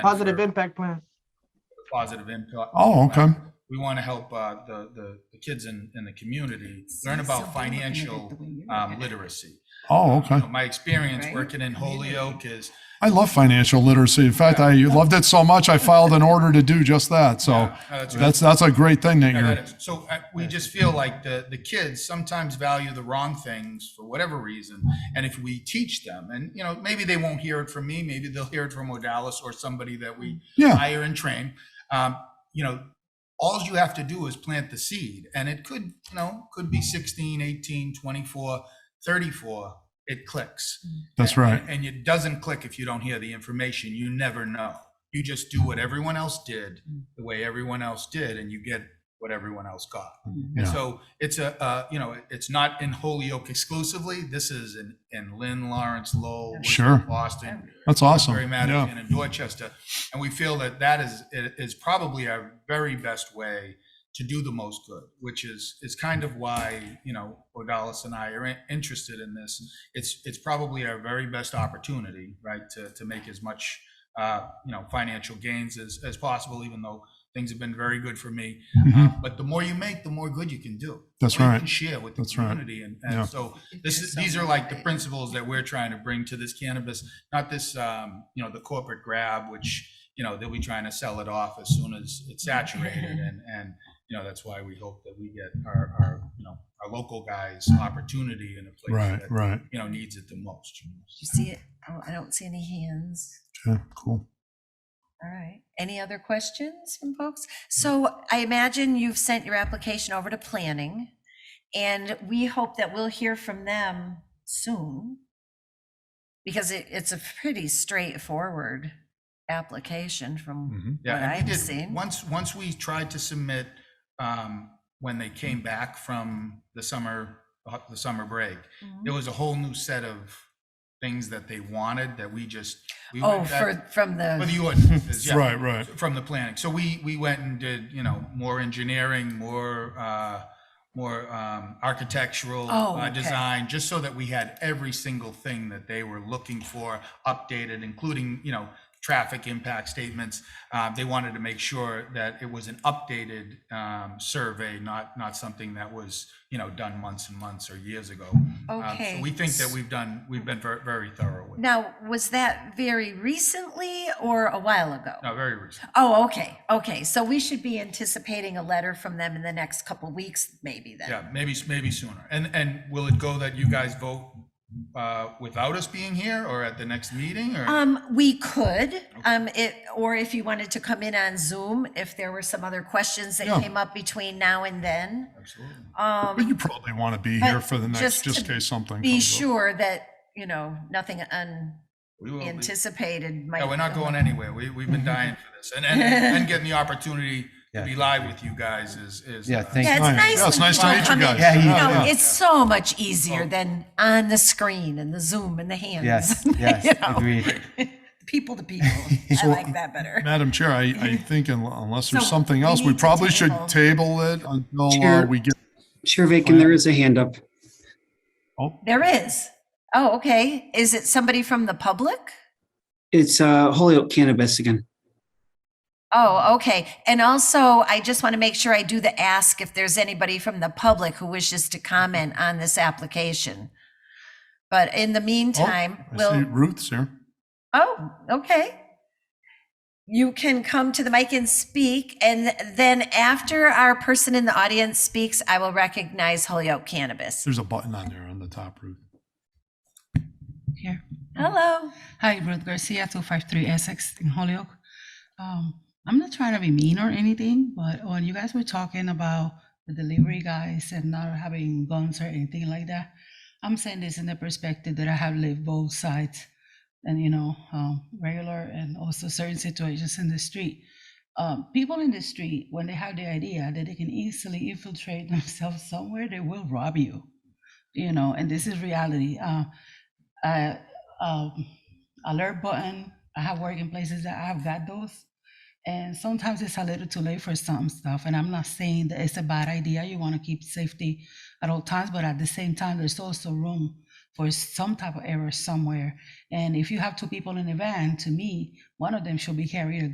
and Positive for impact plan. Positive impact. Oh, okay. We want to help uh, the, the, the kids in, in the community learn about financial um, literacy. Oh, okay. You know, My experience Right? working in Holyoke is, I love financial literacy. In fact, I loved it so much, I filed an order to do just that. So Yeah, no, that's right. that's, that's a great thing that Yeah, you're, that is. so uh, we just feel like the, the kids sometimes value the wrong things for whatever reason. And if we teach them, and you know, maybe they won't hear it from me, maybe they'll hear it from Odalis or somebody that we yeah, hire and train. Um, you know, all you have to do is plant the seed and it could, you know, could be 16, 18, 24, 34, it clicks. that's right. And, and it doesn't click if you don't hear the information. You never know. You just do what everyone else did, the way everyone else did, and you get what everyone else got. And Yeah. so it's a, uh, you know, it's not in Holyoke exclusively. This is in, in Lynn, Lawrence, Lowell, Worcester, Sure. Boston, That's awesome. very Yeah. Madison and Dorchester. And we feel that that is, is probably our very best way to do the most good, which is, is kind of why, you know, Odalis and I are in- interested in this. It's, it's probably our very best opportunity, right, to, to make as much, uh, you know, financial gains as, as possible, even though things have been very good for me. Mhm. But the more you make, the more good you can do. That's The more you right. can Share with the That's right. community. And, and Yeah. so this is, these are like the principles that we're trying to bring to this cannabis, not this, um, you know, the corporate grab, which, you know, they'll be trying to sell it off as soon as it's saturated. And, and, you know, that's why we hope that we get our, our, you know, our local guys opportunity in a place Right, that, right. you know, needs it the most. You see it? Oh, I don't see any hands. Okay, cool. All right. Any other questions from folks? So I imagine you've sent your application over to planning and we hope that we'll hear from them soon. Because it, it's a pretty straightforward application from Yeah, what and we I've did- seen. Once, once we tried to submit, um, when they came back from the summer, uh, the summer break, Mhm. there was a whole new set of things that they wanted that we just. we Oh, went back- for, from For the, the ordinances, yeah. Right, right. From the planning. So we, we went and did, you know, more engineering, more, uh, more, um, architectural. Oh, uh, okay. Design, just so that we had every single thing that they were looking for updated, including, you know, traffic impact statements. Uh, they wanted to make sure that it was an updated, um, survey, not, not something that was, you know, done months and months or years ago. Um, so okay. We think that we've done, we've been ver- very thorough with it. Now, was that very recently or a while ago? No, very recent. Oh, okay, okay. So we should be anticipating a letter from them in the next couple weeks, maybe then? Yeah, maybe, maybe sooner. And, and will it go that you guys vote uh, without us being here or at the next meeting or? Um, we could, um, it, or if you wanted to come in on Zoom, if there were some other questions that Yeah. came up between now and then. Absolutely. But you Um, probably want to be But here for the next, just just in to case something. be comes up. sure that, you know, nothing We will be- unanticipated might. Yeah, we're not come going up. anywhere. We, we've been dying for this. And, and, and getting the opportunity to Yeah. be live with you guys is, is. Yeah, uh, thank- Yeah, Nice. it's Yeah, it's nice. when nice to people meet you come in. guys. Yeah, You yeah, know, yeah. it's so much easier Oh. than on the screen and the Zoom and the hands. Yes, you yes, know. agreed. People to people. I So- like that better. Madam Chair, I, I think un- unless there's So, something we else, we need to probably should table. table it until uh, Chair. we get, Chair Vacan, there is a hand up. There is. Oh, okay. Is it somebody from the public? It's uh, Holyoke Cannabis again. Oh, okay. And also, I just want to make sure I do the ask if there's anybody from the public who wishes to comment on this application. But in the meantime, I see we'll, Ruth's here. oh, okay. You can come to the mic and speak, and then after our person in the audience speaks, I will recognize Holyoke Cannabis. There's a button on there on the top, Ruth. Here. Hmm. Hello. Hi, Ruth Garcia, 253 Essex in Holyoke. Um, I'm not trying to be mean or anything, but when you guys were talking about the delivery guys and not having guns or anything like that, I'm saying this in the perspective that I have lived both sides and, you know, um, regular and also certain situations in the street. Um, people in the street, when they have the idea that they can easily infiltrate themselves somewhere, they will rob you, you know, and this is reality. Uh, I, um, alert button. I have work in places that I've got those. And sometimes it's a little too late for some stuff. And I'm not saying that it's a bad idea. You want to keep safety at all times, but at the same time, there's also room for some type of error somewhere. And if you have two people in a van, to me, one of them should be carrying a